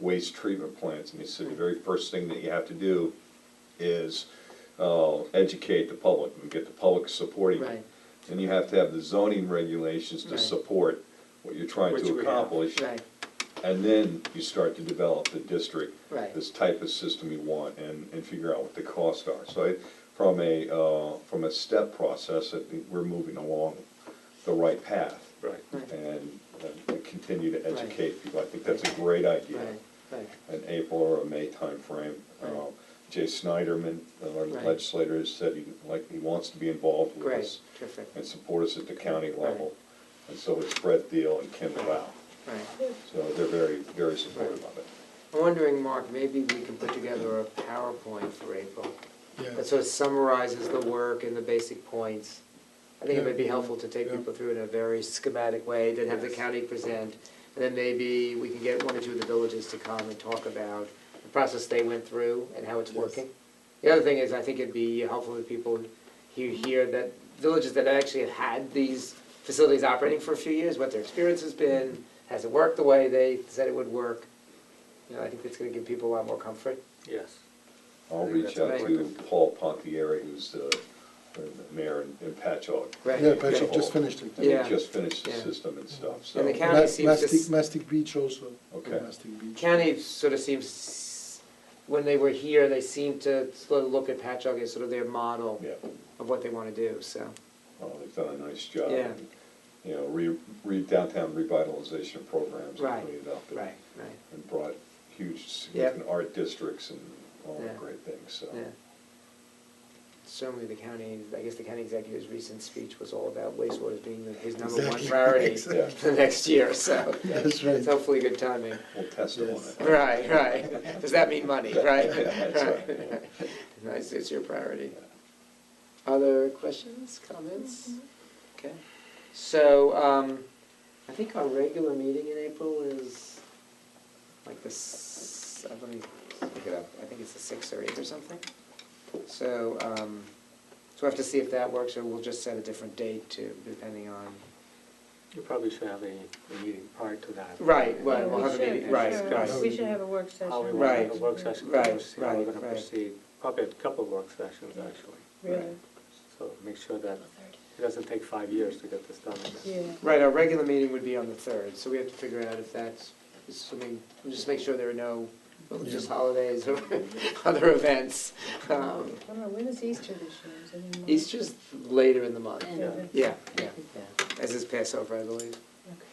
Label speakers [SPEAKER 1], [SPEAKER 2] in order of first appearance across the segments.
[SPEAKER 1] waste treatment plants, and he said the very first thing that you have to do is, uh, educate the public and get the public supporting it.
[SPEAKER 2] Right.
[SPEAKER 1] And you have to have the zoning regulations to
[SPEAKER 2] Right.
[SPEAKER 1] support what you're trying
[SPEAKER 3] Which
[SPEAKER 1] to
[SPEAKER 3] we have.
[SPEAKER 1] accomplish.
[SPEAKER 2] Right,
[SPEAKER 1] And then you start to develop the district,
[SPEAKER 2] Right.
[SPEAKER 1] this type of system you want, and, and figure out what the costs are. So I, from a, uh, from a step process, I think we're moving along the right path.
[SPEAKER 3] Right.
[SPEAKER 2] Right.
[SPEAKER 1] And uh, we continue to
[SPEAKER 2] Right.
[SPEAKER 1] educate people. I think that's a great idea.
[SPEAKER 2] right, right,
[SPEAKER 1] An April or a May timeframe.
[SPEAKER 2] Right.
[SPEAKER 1] Uh, Jay Snyderman, our
[SPEAKER 2] Right.
[SPEAKER 1] legislator, has said he, like, he wants to be involved with
[SPEAKER 2] great,
[SPEAKER 1] us
[SPEAKER 2] terrific,
[SPEAKER 1] and support us at the county
[SPEAKER 2] Right.
[SPEAKER 1] level. And so it's Brett Deal and Kim Lau.
[SPEAKER 2] right.
[SPEAKER 1] So they're very, very supportive of it.
[SPEAKER 2] I'm wondering, Mark, maybe we can put together a PowerPoint for April that
[SPEAKER 4] Yeah,
[SPEAKER 2] sort of summarizes the work and the basic points. I think it might be
[SPEAKER 4] Yeah,
[SPEAKER 2] helpful to take
[SPEAKER 4] yeah.
[SPEAKER 2] people through in a very schematic way, then have the
[SPEAKER 3] Yes.
[SPEAKER 2] county present, and then maybe we can get one or two of the villages to come and talk about the process they went through and how it's
[SPEAKER 4] Yes.
[SPEAKER 2] working. The other thing is, I think it'd be helpful if people hear, hear that villages that actually have had these facilities operating for a few years, what their experience has been, has it worked the way they said it would work? You know, I think that's gonna give people a lot more comfort.
[SPEAKER 3] Yes.
[SPEAKER 1] I'll
[SPEAKER 3] I think
[SPEAKER 1] reach
[SPEAKER 3] that's
[SPEAKER 1] out to
[SPEAKER 3] important.
[SPEAKER 1] Paul Pontieri, who's the the mayor in- in Patchogue.
[SPEAKER 2] Right.
[SPEAKER 4] yeah, but you just finished it.
[SPEAKER 1] And he
[SPEAKER 2] Yeah.
[SPEAKER 1] just finished the
[SPEAKER 2] Yeah.
[SPEAKER 1] system and stuff, so.
[SPEAKER 2] And the county
[SPEAKER 4] Ma-
[SPEAKER 2] seems to
[SPEAKER 4] Mastic,
[SPEAKER 2] s-
[SPEAKER 4] Mastic Beach also.
[SPEAKER 1] Okay.
[SPEAKER 4] Mastic Beach.
[SPEAKER 2] County sort of seems, when they were here, they seemed to sort of look at Patchogue as sort of their model
[SPEAKER 1] Yeah,
[SPEAKER 2] of what they want to do, so,
[SPEAKER 1] well, they've done a nice job.
[SPEAKER 2] Yeah.
[SPEAKER 1] and, You know, re, re downtown revitalization programs and
[SPEAKER 2] Right,
[SPEAKER 1] cleaned up. and-
[SPEAKER 2] right, right,
[SPEAKER 1] And brought huge significant art districts and all that
[SPEAKER 2] Yeah.
[SPEAKER 1] great things, so.
[SPEAKER 2] yeah. Certainly the county, I guess the county executive's recent speech was all about wastewater as being the- his number one
[SPEAKER 4] Exactly,
[SPEAKER 2] priority
[SPEAKER 4] exactly.
[SPEAKER 2] for the next year, so.
[SPEAKER 4] That's
[SPEAKER 2] It's
[SPEAKER 4] right.
[SPEAKER 2] hopefully good timing.
[SPEAKER 1] We'll test them on
[SPEAKER 4] Yes.
[SPEAKER 1] it.
[SPEAKER 2] Right, right. Does that mean money, right?
[SPEAKER 1] That's right.
[SPEAKER 2] Right. Nice, it's your priority. Other questions, comments? Okay, so, um, I think our regular meeting in April is like the, s- uh, let me look it up, I think it's the sixth or eighth or something. So, um, so we have to see if that works, or we'll just set a different date to, depending on,
[SPEAKER 3] You probably should have a, a meeting prior to that.
[SPEAKER 2] Right, well,
[SPEAKER 3] And
[SPEAKER 2] we'll
[SPEAKER 3] we
[SPEAKER 2] have a
[SPEAKER 3] should
[SPEAKER 2] meeting, right,
[SPEAKER 3] discuss
[SPEAKER 4] right.
[SPEAKER 5] We should have a work session.
[SPEAKER 3] How we want to
[SPEAKER 2] Right,
[SPEAKER 3] have a work session, to
[SPEAKER 2] right,
[SPEAKER 3] proceed, how
[SPEAKER 2] right,
[SPEAKER 3] we're gonna
[SPEAKER 2] right.
[SPEAKER 3] proceed, probably a couple of work sessions, actually.
[SPEAKER 5] Really,
[SPEAKER 3] So make sure that it doesn't take five years to get this done.
[SPEAKER 5] yeah.
[SPEAKER 2] right, our regular meeting would be on the third, so we have to figure out if that's, assuming, we'll just make sure there are no religious
[SPEAKER 4] Yeah.
[SPEAKER 2] holidays or other events. Um,
[SPEAKER 5] I don't know, when is Easter this year? Is it in March?
[SPEAKER 2] Easter's later in the month.
[SPEAKER 5] End of it?
[SPEAKER 2] Yeah, yeah, yeah, as is Passover, I believe.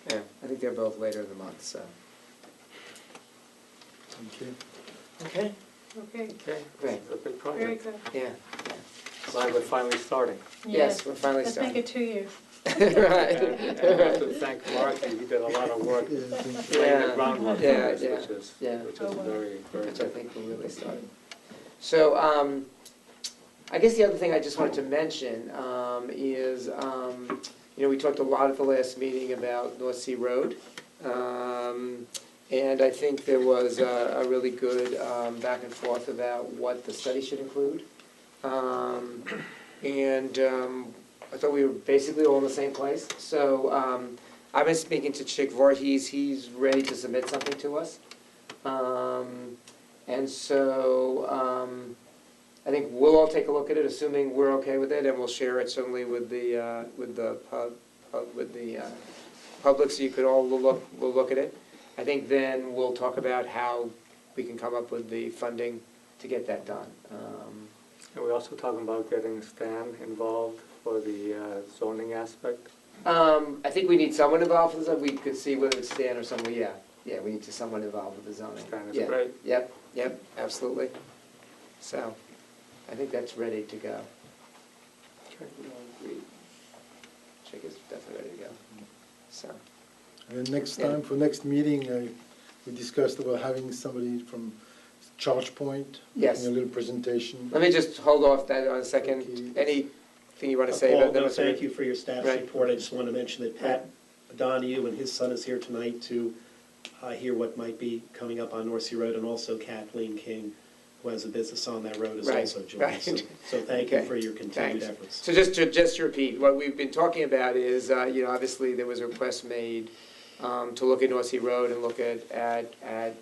[SPEAKER 5] Okay.
[SPEAKER 2] Yeah, I think they're both later in the month, so.
[SPEAKER 4] Okay.
[SPEAKER 2] Okay.
[SPEAKER 5] Okay,
[SPEAKER 2] Okay, great,
[SPEAKER 3] It's a big
[SPEAKER 5] very
[SPEAKER 3] project.
[SPEAKER 5] good.
[SPEAKER 2] yeah.
[SPEAKER 3] Glad we're finally starting.
[SPEAKER 2] Yes, we're finally
[SPEAKER 5] Let's make
[SPEAKER 2] starting.
[SPEAKER 5] it two years.
[SPEAKER 3] And
[SPEAKER 2] Right,
[SPEAKER 3] and I have to thank Mark, he did a lot of work
[SPEAKER 4] Yeah, thank you.
[SPEAKER 3] laying
[SPEAKER 2] Yeah.
[SPEAKER 3] the groundwork for
[SPEAKER 2] Yeah,
[SPEAKER 3] this,
[SPEAKER 2] yeah,
[SPEAKER 3] which is,
[SPEAKER 2] yeah.
[SPEAKER 3] which
[SPEAKER 5] Oh,
[SPEAKER 3] is
[SPEAKER 5] wow.
[SPEAKER 3] very, very
[SPEAKER 2] which I
[SPEAKER 3] good.
[SPEAKER 2] think we're really starting. So, um, I guess the other thing I just wanted to mention, um, is, um, you know, we talked a lot at the last meeting about North Sea Road. Um, and I think there was a, a really good, um, back and forth about what the study should include. Um, and, um, I thought we were basically all in the same place, so, um, I've been speaking to Chick Voorhees, he's ready to submit something to us. Um, and so, um, I think we'll all take a look at it, assuming we're okay with it, and we'll share it certainly with the, uh, with the pub, pub- with the, uh, public, so you could all look, we'll look at it. I think then we'll talk about how we can come up with the funding to get that done. Um,
[SPEAKER 3] And we're also talking about getting Stan involved for the uh, zoning aspect.
[SPEAKER 2] Um, I think we need someone involved with the, we could see whether it's Stan or someone, yeah, yeah, we need to someone involved with the zoning.
[SPEAKER 3] Stan is
[SPEAKER 2] Yeah.
[SPEAKER 3] great.
[SPEAKER 2] Yep, yep, absolutely. So, I think that's ready to go. Chick is definitely ready to go, so.
[SPEAKER 4] And next
[SPEAKER 2] Yeah.
[SPEAKER 4] time, for next meeting, I, we discussed about having somebody from Charge Point.
[SPEAKER 2] Yes.
[SPEAKER 4] Making a little presentation.
[SPEAKER 2] Let me just hold off that on a
[SPEAKER 4] Okay.
[SPEAKER 2] second. Anything you want to say
[SPEAKER 6] Uh, Paul,
[SPEAKER 2] about
[SPEAKER 6] no,
[SPEAKER 2] that?
[SPEAKER 6] thank you for your staff
[SPEAKER 2] Right.
[SPEAKER 6] support. I just want to mention that Pat Donahue and his son is here tonight to uh, hear what might be coming up on North Sea Road, and also Kathleen King, who has a business on that road, is
[SPEAKER 2] Right,
[SPEAKER 6] also joining. So-
[SPEAKER 2] right.
[SPEAKER 6] So thank you
[SPEAKER 2] Okay,
[SPEAKER 6] for your continued
[SPEAKER 2] thanks.
[SPEAKER 6] efforts.
[SPEAKER 2] So just to, just to repeat, what we've been talking about is, uh, you know, obviously there was a request made um, to look at North Sea Road and look at, at, at